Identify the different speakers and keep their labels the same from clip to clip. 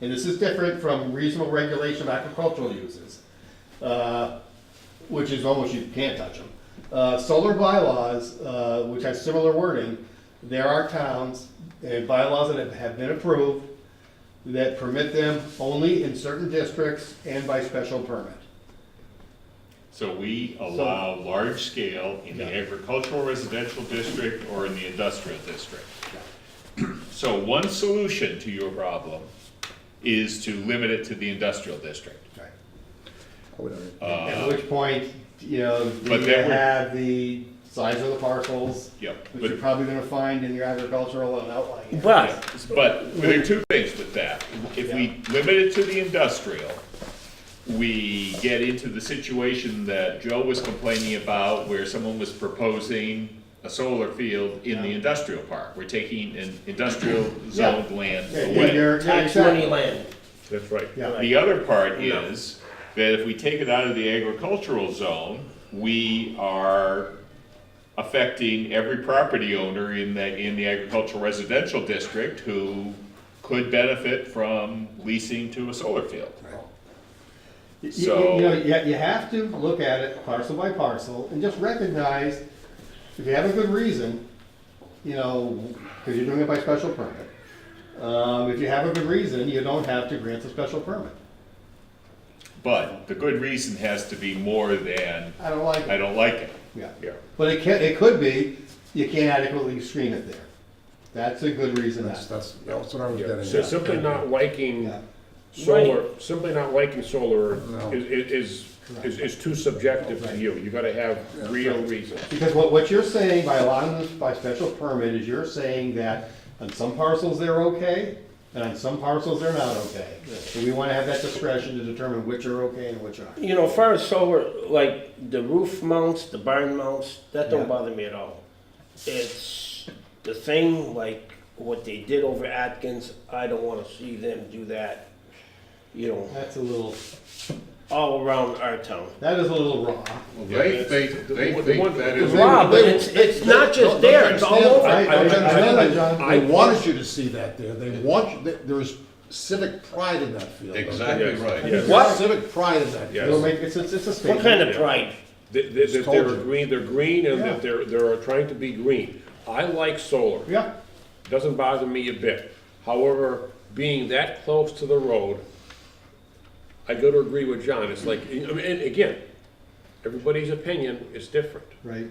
Speaker 1: and this is different from reasonable regulation of agricultural uses, uh, which is almost, you can't touch them. Uh, Solar bylaws, uh, which has similar wording, there are towns and bylaws that have been approved that permit them only in certain districts and by special permit.
Speaker 2: So we allow large scale in the
Speaker 1: Yeah.
Speaker 2: agricultural residential district or in the industrial district. So one solution to your problem is to limit it to the industrial district.
Speaker 3: I would argue.
Speaker 1: At
Speaker 2: Uh,
Speaker 1: which point, you know,
Speaker 2: But
Speaker 1: you
Speaker 2: that would-
Speaker 1: have the size of the parcels,
Speaker 2: Yep,
Speaker 1: which
Speaker 2: but-
Speaker 1: you're probably gonna find in your agricultural and outlying areas.
Speaker 2: Yeah,
Speaker 4: But,
Speaker 2: But there are two things with that. If we limit it to the industrial, we get into the situation that Joe was complaining about where someone was proposing a solar field in the
Speaker 1: Yeah.
Speaker 2: industrial park. We're taking an industrial zoned land
Speaker 1: Yeah,
Speaker 2: away.
Speaker 1: you're- yeah,
Speaker 4: tax money
Speaker 1: exactly.
Speaker 4: land,
Speaker 2: That's right.
Speaker 1: Yeah.
Speaker 2: The other part is that if we take it out of the agricultural zone, we are affecting every property owner in the, in the agricultural residential district who could benefit from leasing to a solar field.
Speaker 1: You- you-
Speaker 2: So-
Speaker 1: You know, you, you have to look at it parcel by parcel and just recognize, if you have a good reason, you know, because you're doing it by special permit. Um, if you have a good reason, you don't have to grant the special permit.
Speaker 2: But the good reason has to be more than,
Speaker 1: I don't like
Speaker 2: I
Speaker 1: it,
Speaker 2: don't like it.
Speaker 1: yeah.
Speaker 2: Yeah.
Speaker 1: But it can, it could be, you can't adequately screen it there. That's a good reason,
Speaker 3: That's,
Speaker 1: that,
Speaker 3: that's, that's what I was
Speaker 5: Yeah,
Speaker 3: getting
Speaker 5: So
Speaker 3: at.
Speaker 5: simply not liking
Speaker 1: yeah.
Speaker 5: solar, simply not liking solar
Speaker 3: No.
Speaker 5: is, is, is, is too subjective to you. You gotta have real reasons.
Speaker 1: Because what, what you're saying by allowing this by special permit is you're saying that on some parcels they're okay, and on some parcels they're not okay. So we wanna have that discretion to determine which are okay and which aren't.
Speaker 4: you know, far as solar, like the roof mounts, the barn mounts, that
Speaker 1: Yeah.
Speaker 4: don't bother me at all. It's the thing, like what they did over Atkins, I don't wanna see them do that, you know,
Speaker 1: That's a little,
Speaker 4: all around our town.
Speaker 1: that is a little raw.
Speaker 6: They think, they
Speaker 5: The one-
Speaker 6: think that is.
Speaker 4: Wow, but it's, it's not just there, it's all
Speaker 1: Understand-
Speaker 4: over.
Speaker 1: I, I understand that, John.
Speaker 3: I wanted you to see that there, they want, you- there- there's civic pride in that field. okay?
Speaker 6: Exactly
Speaker 5: Yes,
Speaker 6: right.
Speaker 5: yes.
Speaker 4: What?
Speaker 3: Civic pride in that.
Speaker 5: Yes.
Speaker 1: It'll make, it's, it's it's a
Speaker 4: What kind
Speaker 1: statement.
Speaker 4: of pride?
Speaker 5: That, that- that
Speaker 3: told
Speaker 5: they're
Speaker 3: you.
Speaker 5: green, they're green and
Speaker 1: Yeah.
Speaker 5: that they're, they're trying to be green. I like solar.
Speaker 1: Yeah,
Speaker 5: Doesn't bother me a bit. However, being that close to the road, I go to agree with John. It's like, I mean, and again, everybody's opinion is different.
Speaker 1: right.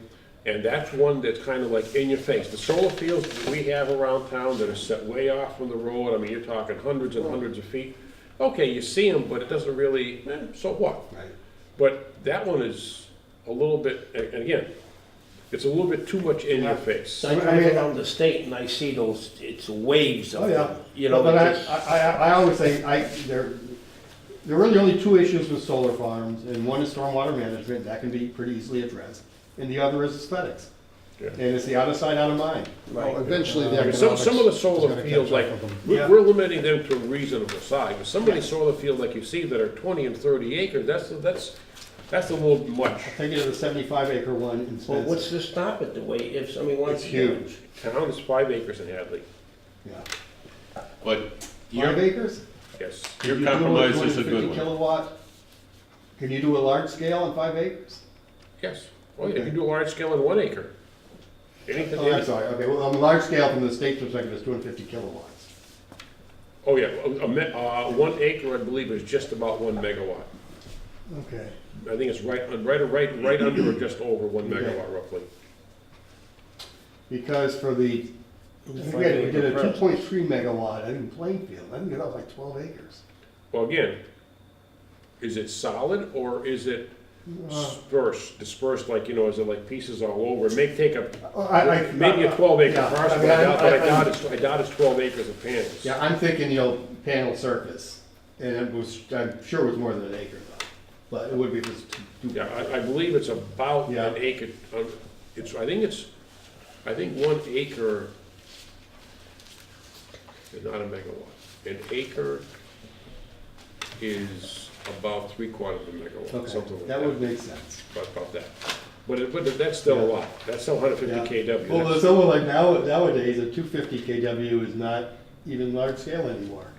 Speaker 5: And that's one that's kind of like in your face. The solar fields that we have around town that are set way off from the road, I mean, you're talking hundreds and hundreds of feet. Okay, you see them, but it doesn't really, eh, so what?
Speaker 1: Right.
Speaker 5: But that one is a little bit, and again, it's a little bit too much in your face.
Speaker 4: I
Speaker 1: I
Speaker 4: drive
Speaker 1: mean-
Speaker 4: around the state and I see those, it's waves
Speaker 1: Oh,
Speaker 4: of
Speaker 1: yeah.
Speaker 4: them, you know.
Speaker 1: But I,
Speaker 4: it's-
Speaker 1: I, I- I always say, I, there, there are really only two issues with solar farms, and one is stormwater management, that can be pretty easily addressed, and the other is aesthetics.
Speaker 5: Yeah.
Speaker 1: And it's the out of sight, out of mind.
Speaker 3: Well, eventually the
Speaker 5: I mean,
Speaker 3: economics.
Speaker 5: Some, some of the
Speaker 3: is
Speaker 5: solar
Speaker 3: gonna catch
Speaker 5: fields,
Speaker 3: up
Speaker 5: like,
Speaker 3: with them.
Speaker 5: we-
Speaker 1: Yeah.
Speaker 5: we're limiting them to a reasonable size, but some of these solar fields like you see that are twenty and thirty acres, that's, that's, that's a little much.
Speaker 1: Take it to the seventy-five acre one in
Speaker 4: Well, what's
Speaker 1: Spencer.
Speaker 4: to stop it the way, if somebody wants
Speaker 1: It's
Speaker 4: to.
Speaker 1: huge.
Speaker 5: Town is five acres in Hadley,
Speaker 1: Yeah.
Speaker 2: But
Speaker 1: Five
Speaker 2: your,
Speaker 1: acres?
Speaker 5: yes.
Speaker 1: Can
Speaker 2: your
Speaker 1: you do a
Speaker 2: compromise is a
Speaker 1: 250
Speaker 2: good one.
Speaker 1: Kilowatt, can you do a large scale on five acres?
Speaker 5: Yes, well, you can do a large scale in one acre. Anything,
Speaker 1: Oh, I'm sorry, okay, well, on large scale from the state's perspective, it's two hundred and fifty kilowatts.
Speaker 5: oh yeah, a me- uh, one acre, I believe, is just about one megawatt.
Speaker 1: Okay.
Speaker 5: I think it's right, uh, right, right, right under or just over one megawatt roughly.
Speaker 1: Because for the, I think we had- we did a two point three megawatt in Plainfield, I think that was like twelve acres.
Speaker 5: Well, again, is it solid or is it
Speaker 1: Uh.
Speaker 5: dispersed, dispersed like, you know, is it like pieces all over? It may take a,
Speaker 1: Oh, I- I-
Speaker 5: maybe a twelve acre
Speaker 1: Yeah, I
Speaker 5: parcel,
Speaker 1: mean,
Speaker 5: but I doubt, but I
Speaker 1: I- I-
Speaker 5: doubt it's, I doubt it's twelve acres of panels.
Speaker 1: Yeah, I'm thinking, you know, panel surface, and it was, I'm sure it was more than an acre though, but it would be just two.
Speaker 5: Yeah, I, I believe it's about
Speaker 1: Yeah.
Speaker 5: an acre, um, it's, I think it's, I think one acre, is not a megawatt, an acre is about three quarters of a megawatt, something
Speaker 1: Okay, that
Speaker 5: like that.
Speaker 1: would make sense.
Speaker 5: About, about that, but it, but that's still a lot, that's still hundred
Speaker 1: Yeah.
Speaker 5: fifty KW.
Speaker 1: Well,
Speaker 5: That's-
Speaker 1: it's almost like now, nowadays, a two fifty KW is not even large scale anymore.